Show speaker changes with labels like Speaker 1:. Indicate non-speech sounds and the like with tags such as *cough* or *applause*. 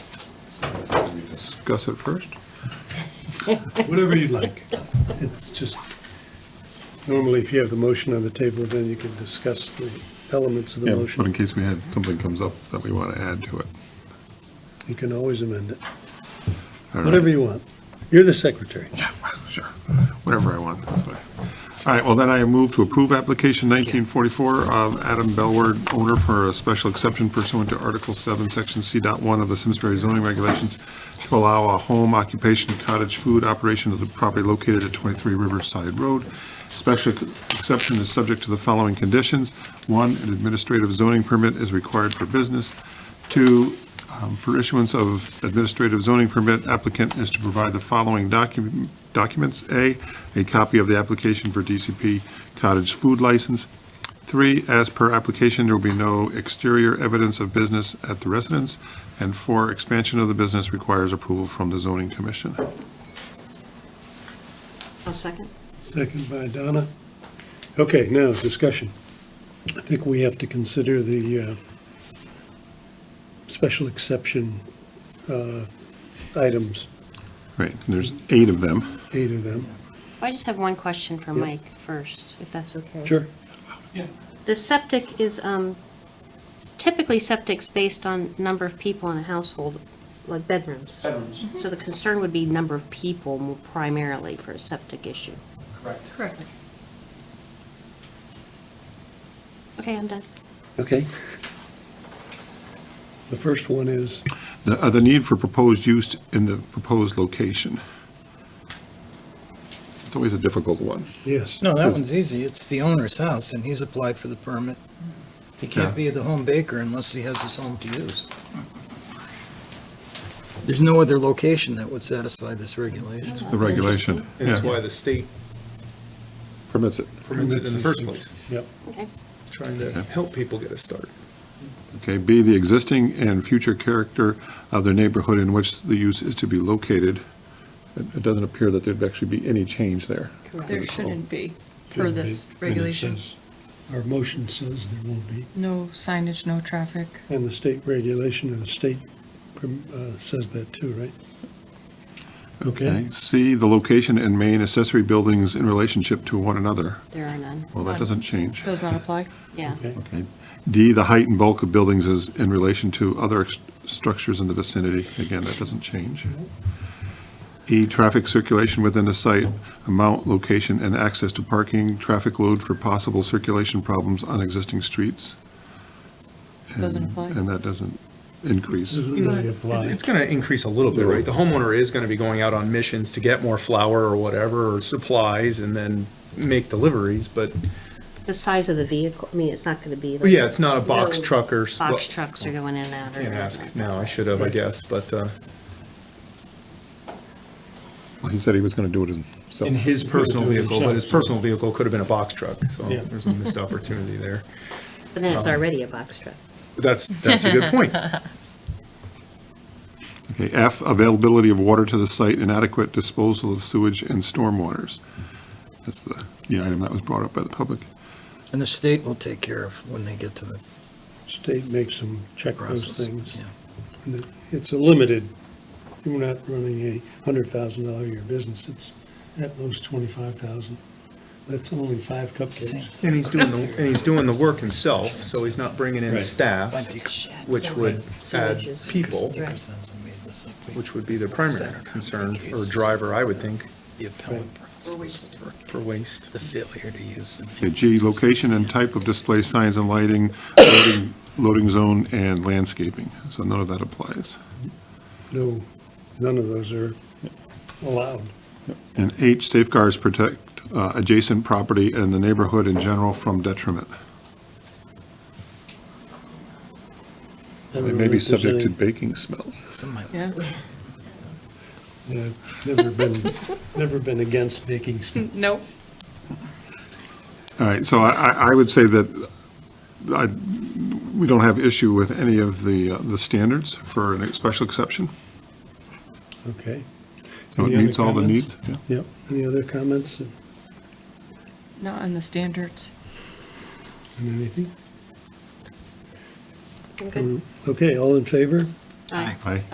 Speaker 1: discuss it first?
Speaker 2: Whatever you'd like. It's just, normally if you have the motion on the table, then you can discuss the elements of the
Speaker 1: Yeah, But in
Speaker 2: motion.
Speaker 1: case we had, something comes up that we want to add to it.
Speaker 2: You can always amend it,
Speaker 1: All right.
Speaker 2: whatever you want. You're the secretary.
Speaker 1: Yeah, well, sure, whatever I want, that's fine. All right, well, then I move to approve application 1944 of Adam Bellward, owner for a special exception pursuant to Article 7, Section C. Dot One of the Simsbury zoning regulations to allow a home occupation cottage food operation of the property located at 23 Riverside Road. Special exception is subject to the following conditions. One, an administrative zoning permit is required for business. Two, um, For issuance of administrative zoning permit, applicant is to provide the following docu- documents. A, a copy of the application for DCP cottage food license. Three, as per application, there will be no exterior evidence of business at the residence. And four, expansion of the business requires approval from the zoning commission.
Speaker 3: I'll second.
Speaker 2: Second by Donna. Okay, now, discussion. I think we have to consider the uh, special exception uh, items,
Speaker 1: Right, and there's eight of them.
Speaker 2: eight of them.
Speaker 3: I just have one question for
Speaker 2: Yeah.
Speaker 3: Mike first, if that's okay.
Speaker 2: Sure.
Speaker 3: The septic is, um, typically septic's based on number of people in a household, like bedrooms.
Speaker 4: Bedrooms,
Speaker 3: So the concern would be number of people mo- primarily for a septic issue.
Speaker 4: correct.
Speaker 5: Correct.
Speaker 3: Okay, I'm done.
Speaker 2: Okay. The first one is,
Speaker 1: The, uh, the need for proposed use in the proposed location. It's always a difficult one.
Speaker 2: yes.
Speaker 6: No, that one's easy. It's the owner's house, and he's applied for the permit. He can't be the home baker unless he has his home to use. There's no other location that would satisfy this regulation.
Speaker 1: The regulation,
Speaker 4: And it's
Speaker 1: yeah,
Speaker 4: why the state
Speaker 1: permits it.
Speaker 4: permits it in the first place,
Speaker 3: Okay.
Speaker 4: trying to help people get a start.
Speaker 1: Okay, B, the existing and future character of the neighborhood in which the use is to be located. It it doesn't appear that there'd actually be any change there.
Speaker 5: There shouldn't be, per this
Speaker 2: And it
Speaker 5: regulation.
Speaker 2: says- Our motion says there won't be,
Speaker 5: No signage, no traffic.
Speaker 2: and the state regulation, and the state perm- uh, says that too, right? Okay,
Speaker 1: C, the location and main accessory buildings in relationship to one another.
Speaker 3: There are none,
Speaker 1: Well, that doesn't change.
Speaker 5: Does not apply.
Speaker 3: yeah.
Speaker 2: okay,
Speaker 1: Okay. D, the height and bulk of buildings is in relation to other ex- structures in the vicinity. Again, that doesn't change. E, traffic circulation within the site, amount, location, and access to parking, traffic load for possible circulation problems on existing streets. And-
Speaker 5: Doesn't apply.
Speaker 1: And that doesn't increase.
Speaker 2: doesn't really apply.
Speaker 4: It's going to increase a little bit, right? The homeowner is going to be going out on missions to get more flour or whatever, or supplies, and then make deliveries, but,
Speaker 3: The size of the vehicle, I mean, it's not gonna be.
Speaker 4: but yeah, it's not a box
Speaker 3: No
Speaker 4: truck or.
Speaker 3: Box trucks are going in and out. or
Speaker 4: Can't ask
Speaker 3: whatnot.
Speaker 4: now, I should have, I guess, but uh,
Speaker 1: He said he was going to do it himself.
Speaker 4: in his personal vehicle, but his personal vehicle could have been a box truck, so
Speaker 2: Yeah.
Speaker 4: there's a missed opportunity there.
Speaker 3: But then it's already a box truck.
Speaker 4: But That's, that's a good
Speaker 2: *laughs*
Speaker 4: point.
Speaker 1: Okay, F, availability of water to the site, inadequate disposal of sewage and stormwaters. That's the, the item that was brought up by the public.
Speaker 6: And the state will take care of when they get to the
Speaker 2: State makes them check those
Speaker 6: process.
Speaker 2: things.
Speaker 6: Yeah.
Speaker 2: And it- It's a limited, you're not running a hundred thousand dollar a year business, it's at most twenty-five thousand. That's only five
Speaker 6: Same
Speaker 2: cupcakes.
Speaker 6: thing.
Speaker 4: And he's doing, the and he's doing the work himself, so he's not bringing in
Speaker 2: Right.
Speaker 4: staff, which would add
Speaker 3: Sewages.
Speaker 4: people,
Speaker 6: Dickinson made this up. We-
Speaker 4: which would be the primary concern, or driver, I would think,
Speaker 6: The appellate process for
Speaker 4: for waste.
Speaker 6: the failure to use. the-
Speaker 1: Okay, G, location and type of display signs and lighting, loading- loading zone and landscaping. So none of that applies.
Speaker 2: No, none of those are allowed.
Speaker 1: And H, safeguards protect uh, adjacent property and the neighborhood in general from detriment.
Speaker 2: I don't
Speaker 1: It
Speaker 2: know
Speaker 1: may be
Speaker 2: if there's
Speaker 1: subject to
Speaker 2: any-
Speaker 1: baking smells.
Speaker 6: Some might-
Speaker 5: Yeah.
Speaker 2: Yeah, never been, never been against
Speaker 5: *laughs*
Speaker 2: baking sp-
Speaker 5: *laughs* Nope.
Speaker 1: All right, so I, I I would say that I, we don't have issue with any of the, uh, the standards for a special exception.
Speaker 2: Okay.
Speaker 1: So it
Speaker 2: Any other
Speaker 1: meets all the
Speaker 2: comments?
Speaker 1: needs. yeah.
Speaker 2: Yep. Any other comments on
Speaker 5: Not on the standards.
Speaker 2: anything?
Speaker 3: Okay. 그러니까
Speaker 2: Okay, all in favor?
Speaker 3: Aye.
Speaker 1: Aye.